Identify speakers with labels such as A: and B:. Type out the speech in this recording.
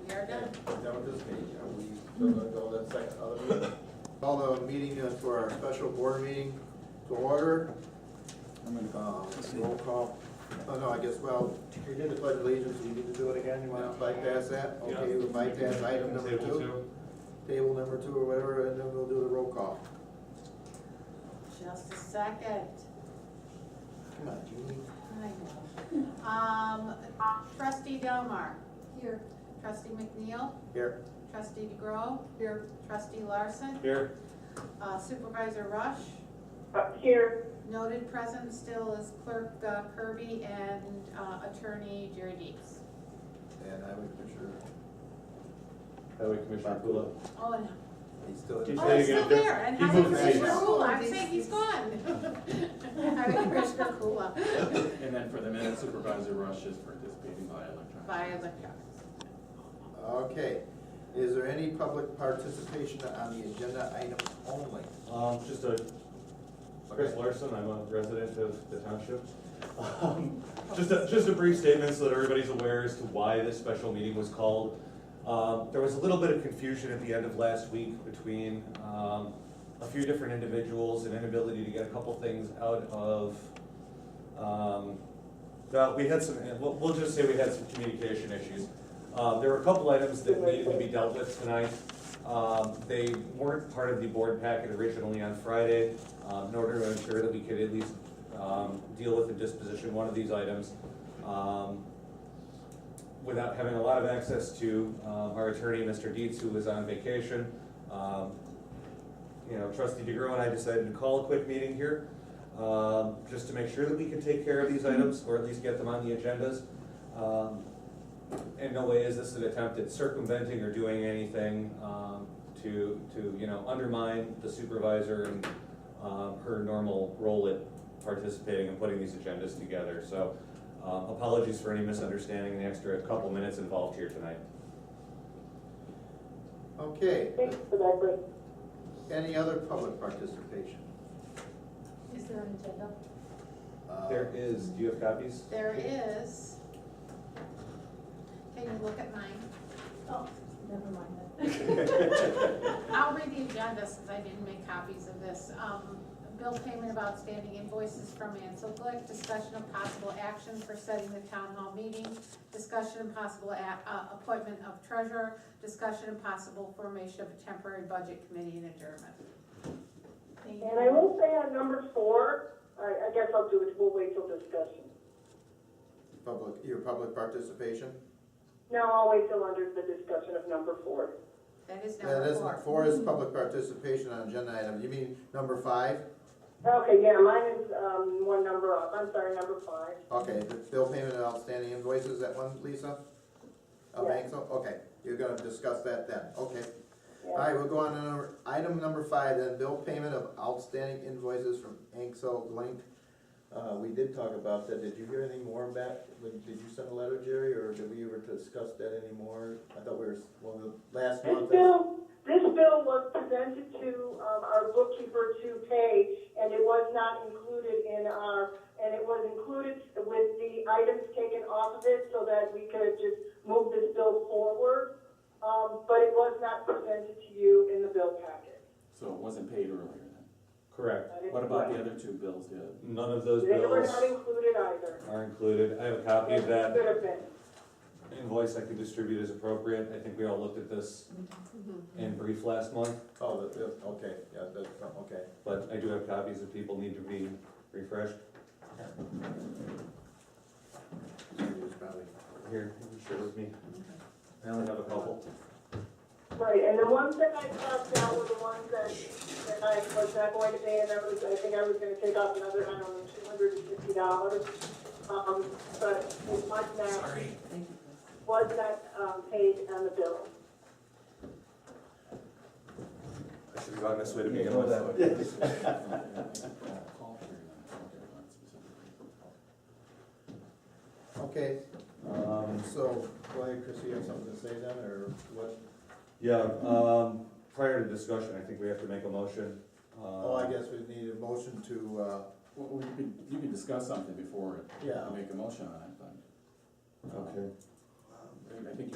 A: Is that what this means? Are we still gonna go that second other meeting?
B: Call the meeting uh, to our special board meeting to order.
C: I'm gonna go.
B: Um, Roll call. Oh, no, I guess, well, we did the pledge of allegiance. We need to do it again. You want to bypass that? Okay, we'll bypass item number
A: Table
B: two. Table number two or whatever, and then we'll do the roll call.
D: Just a second.
B: Come on, Julie.
D: I know. Um, trustee Delmar,
E: Here.
D: trustee McNeil,
B: Here.
D: trustee DeGrove. Here. Trustee Larson,
A: Here.
D: uh, supervisor Rush,
E: Here.
D: noted present still is clerk uh, Kirby and uh, attorney Jerry Deeks.
B: And I would picture
A: Highway Commissioner Pula.
D: Oh, and,
B: he's still in.
A: He's
D: oh, he's
A: saying
D: still
A: it.
D: there, and
A: He
D: Highway
A: moved seats.
D: Commissioner Kula, I'm saying he's gone. Highway Commissioner Kula,
C: And then for the minute Supervisor Rush is participating by electronic.
D: by electronics.
B: Okay. Is there any public participation on the agenda item only?
A: Um, just a, Chris Larson, I'm a resident of the township. Um, Just a, just a brief statement so that everybody's aware as to why this special meeting was called. Um, there was a little bit of confusion at the end of last week between, um, a few different individuals and inability to get a couple things out of, um, well, we had some, we'll, we'll just say we had some communication issues. Uh, there were a couple items that needed to be dealt with tonight. Um, they weren't part of the board packet originally on Friday, um, in order to ensure that we could at least, um, deal with and disposition one of these items. Um, without having a lot of access to, um, our attorney, Mr. Dietz, who was on vacation. Um, you know, trustee DeGro and I decided to call a quick meeting here, um, just to make sure that we could take care of these items, or at least get them on the agendas. Um, in no way is this an attempt at circumventing or doing anything um, to, to, you know, undermine the supervisor and um, her normal role at participating and putting these agendas together. So um, apologies for any misunderstanding, the extra couple minutes involved here tonight.
B: Okay.
E: Thanks for that, Brett.
B: Any other public participation?
E: Is there an agenda?
B: Uh,
A: There is, do you have copies?
D: There is. Can you look at mine?
E: Oh, never mind that.
D: I'll read the agenda since I didn't make copies of this. Um, bill payment of outstanding invoices from Ansel Glick, discussion of possible action for setting the town hall meeting, discussion and possible a- uh, appointment of treasurer, discussion and possible formation of a temporary budget committee and adjournment.
E: And I will say on number four, I, I guess I'll do it, we'll wait till discussion.
B: Public, your public participation?
E: No, I'll wait till under the discussion of number four.
D: That is
B: Yeah,
D: number
B: that's,
D: four.
B: four is public participation on agenda item, you mean number five?
E: Okay, yeah, mine is, um, one number up, I'm sorry, number five.
B: Okay, the bill payment and outstanding invoices, that one, Lisa? Of
E: Yeah.
B: Ansel, okay, you're gonna discuss that then, okay.
E: Yeah.
B: Alright, we'll go on to number, item number five, then bill payment of outstanding invoices from Ansel Link. Uh, we did talk about that, did you hear anything more back, When- did you send a letter, Jerry, or did we ever discuss that anymore? I thought we were, well, the last
E: This
B: month.
E: bill, this bill was presented to, um, our bookkeeper to pay, and it was not included in our, and it was included with the items taken off of it, so that we could just move this bill forward. Um, but it was not presented to you in the bill packet.
C: So it wasn't paid earlier then.
A: Correct.
C: What about the other two bills did?
A: None of those
E: They were
A: bills
E: not included either.
A: are included. I have a copy of that.
E: Could have been.
A: invoice I could distribute as appropriate. I think we all looked at this in brief last month,
B: Oh, the, the- okay, yeah, that's, okay.
A: but I do have copies if people need to be refreshed.
B: It was probably-
A: Here, share with me. I only have a couple.
E: Right, and the ones that I crossed out were the ones that, that I was not going to pay, and I was, I think I was gonna take off another, I don't know, two hundred and fifty dollars. Um, but it was not, was not, um, paid on the bill.
A: I should have gone this way to begin
C: Yeah,
A: with.
B: Okay,
A: Um,
B: so, go ahead, Chris, you have something to say then, or what?
A: Yeah, um, prior to discussion, I think we have to make a motion.
B: Oh, I guess we need a motion to, uh,
C: Well, we could, you can discuss something before
B: yeah,
C: you make a motion on it, but
A: Um,
C: um,
A: Okay.
C: I think you